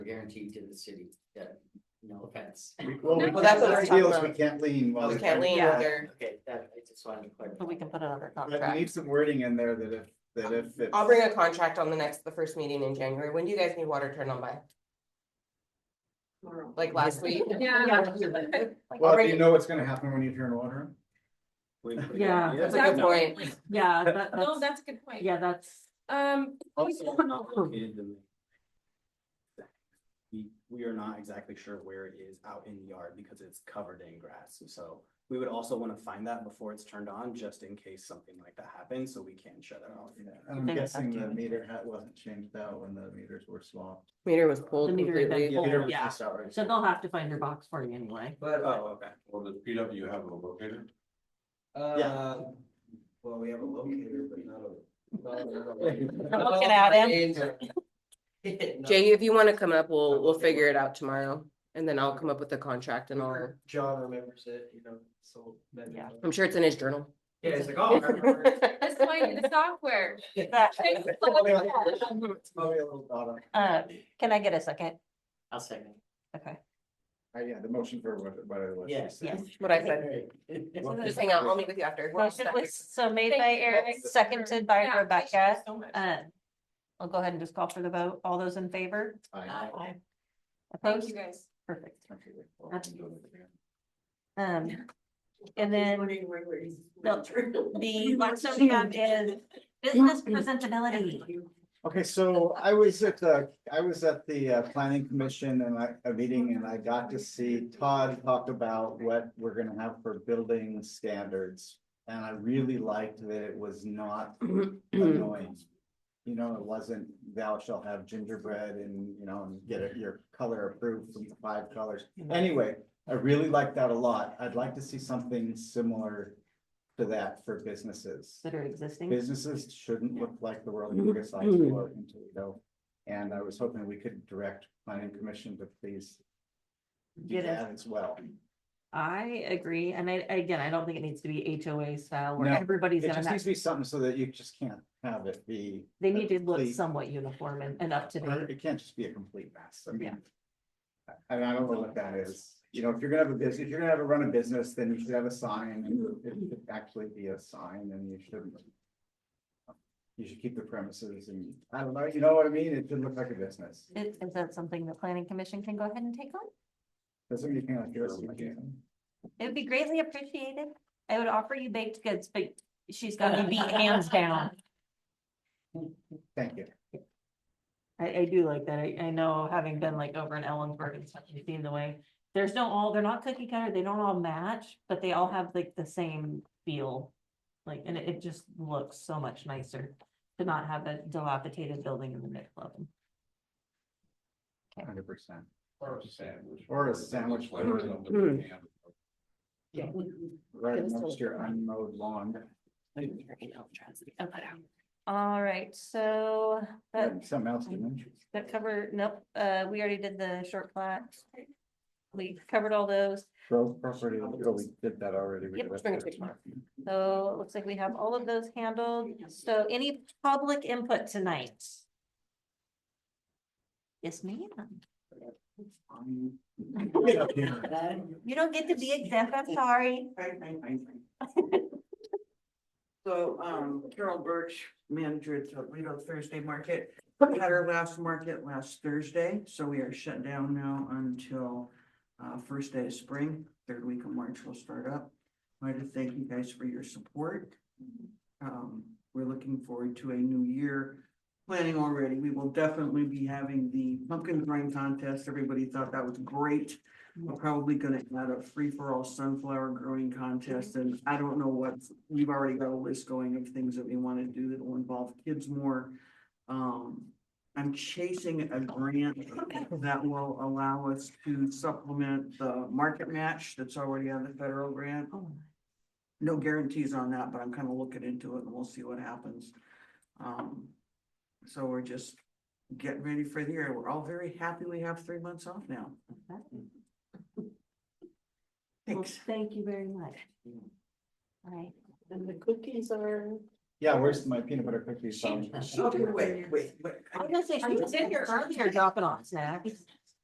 guaranteed to the city, that, no offense. Well, we Well, can't, that's what I our was talking deal is we about. can't lean while. We they're can't trying to lean figure while out- they're- Okay, that, I just wanted to clarify. But we can put it under But we contract. need some wording in there that if, that if it's. I'll bring a contract on the next, the first meeting in January. When do you guys need water turned on by? Like last week? Yeah. Well, I'll you bring- know what's gonna happen when you turn water on? Yeah. That's a good point. Yeah, that, No, that's, that's a good point. yeah, that's. Um, Hmm. We, we are not exactly sure where it is out in the yard because it's covered in grass, so we would also wanna find that before it's turned on, just in case something like that happens, so we can shut it off. Yeah, I'm They would have guessing the to. meter hat wasn't changed out when the meters were swapped. Meter was pulled The meter completely. event. Yeah, Oh, Meter was yeah. just outright So they'll have to find your box for you anyway. But, uh, Oh, okay. Well, the PW have a locator. uh, well, we have a locator, but not a. not a- Look at him. No. Jay, if you wanna come up, we'll, we'll figure it out tomorrow. And then I'll come up with a contract and all. John remembers it, you know, so. then- Yeah. I'm sure it's in his journal. Yeah, it's like, oh, I remember. it." that's why the software. It's probably a little bottom. Uh, can I get a second? I'll second. Okay. Uh, yeah, the motion for what, what it was. she Yes. said. Yes. What I said. Just hang out. I'll meet with you after. We're all Motion set. was so made Thank by you, Eric, Eric. seconded by Yeah, thank you Rebecca. so much. Um, I'll go ahead and just call for the vote. All those in favor? Aye. Aye. Thank Opposed? you guys. Perfect. Okay, wait, well, That's- I'm doing it again. Um, and then the last one we have is business presentability. Okay, so I was at the, I was at the uh, planning commission and I, a meeting and I got to see Todd talk about what we're gonna have for building standards. And I really liked that it was not annoying. You know, it wasn't thou shall have gingerbread and, you know, and get it- your color approved from five colors. Anyway, I really liked that a lot. I'd like to see something similar to that for businesses. That are existing. Businesses shouldn't look like the world we criticize for in Toledo. And I was hoping we could direct planning commission to please do Get it. that as well. I agree. And I, again, I don't think it needs to be HOA style where No, everybody's It gonna just have, needs to be something so that you just can't have it be. they need to look complete- somewhat uniform and, and up to or date. It can't just be a complete mess. I Yeah. mean. And I don't know what that is. You know, if you're gonna have a business, if you're gonna have a run a business, then you should have a sign and it should actually be a sign and you shouldn't. You should keep the premises and I don't know, you know what I mean? It should look like a business. Is, is that something the planning commission can go ahead and take on? Doesn't mean you can't do it. It would be greatly appreciated. I would offer you baked goods, but she's got to be hands down. Thank you. I, I do like that. I, I know, having been like over in Ellensburg and stuff, you've seen the way, there's no all, they're not cookie cutter, they don't all match, but they all have like the same feel. Like, and it, it just looks so much nicer to not have a dilapidated building in the middle of them. Hundred percent. Or a sandwich. Or a sandwich. Like Hmm. something. Yeah. Right next to your unmowed lawn. All right, so that, Something else to mention. that cover, nope, uh, we already did the short plats. We covered all those. Grove property, oh, we did that already. We Yep, did bring it that. to tomorrow. So it looks like we have all of those handled. So any public input tonight? Yes, ma'am. Get up here. You don't get to be exempt, I'm sorry. So, um, Carol Birch, manager at Toledo Thursday Market, had our last market last Thursday, so we are shut down now until uh, first day of spring, third week of March we will start up. I'd like to thank you guys for your support. Um, we're looking forward to a new year. Planning already, we will definitely be having the pumpkin grind contest. Everybody thought that was great. We're probably gonna add a free-for-all sunflower growing contest, and I don't know what, we've already got a list going of things that we wanna do that will involve kids more. Um, I'm chasing a grant that will allow us to supplement the market match that's already on the federal grant. Oh, No guarantees on that, but I'm kind of looking into it and we'll see what happens. Um, so we're just getting ready for the year. We're all very happy we have three months off now. Well, Thanks. thank you very much. All right. And the cookies are. Yeah, where's my peanut butter cookies? She- Um, she- Okay, wait, wait, wait. I was gonna say, she was in here earlier dropping off snacks.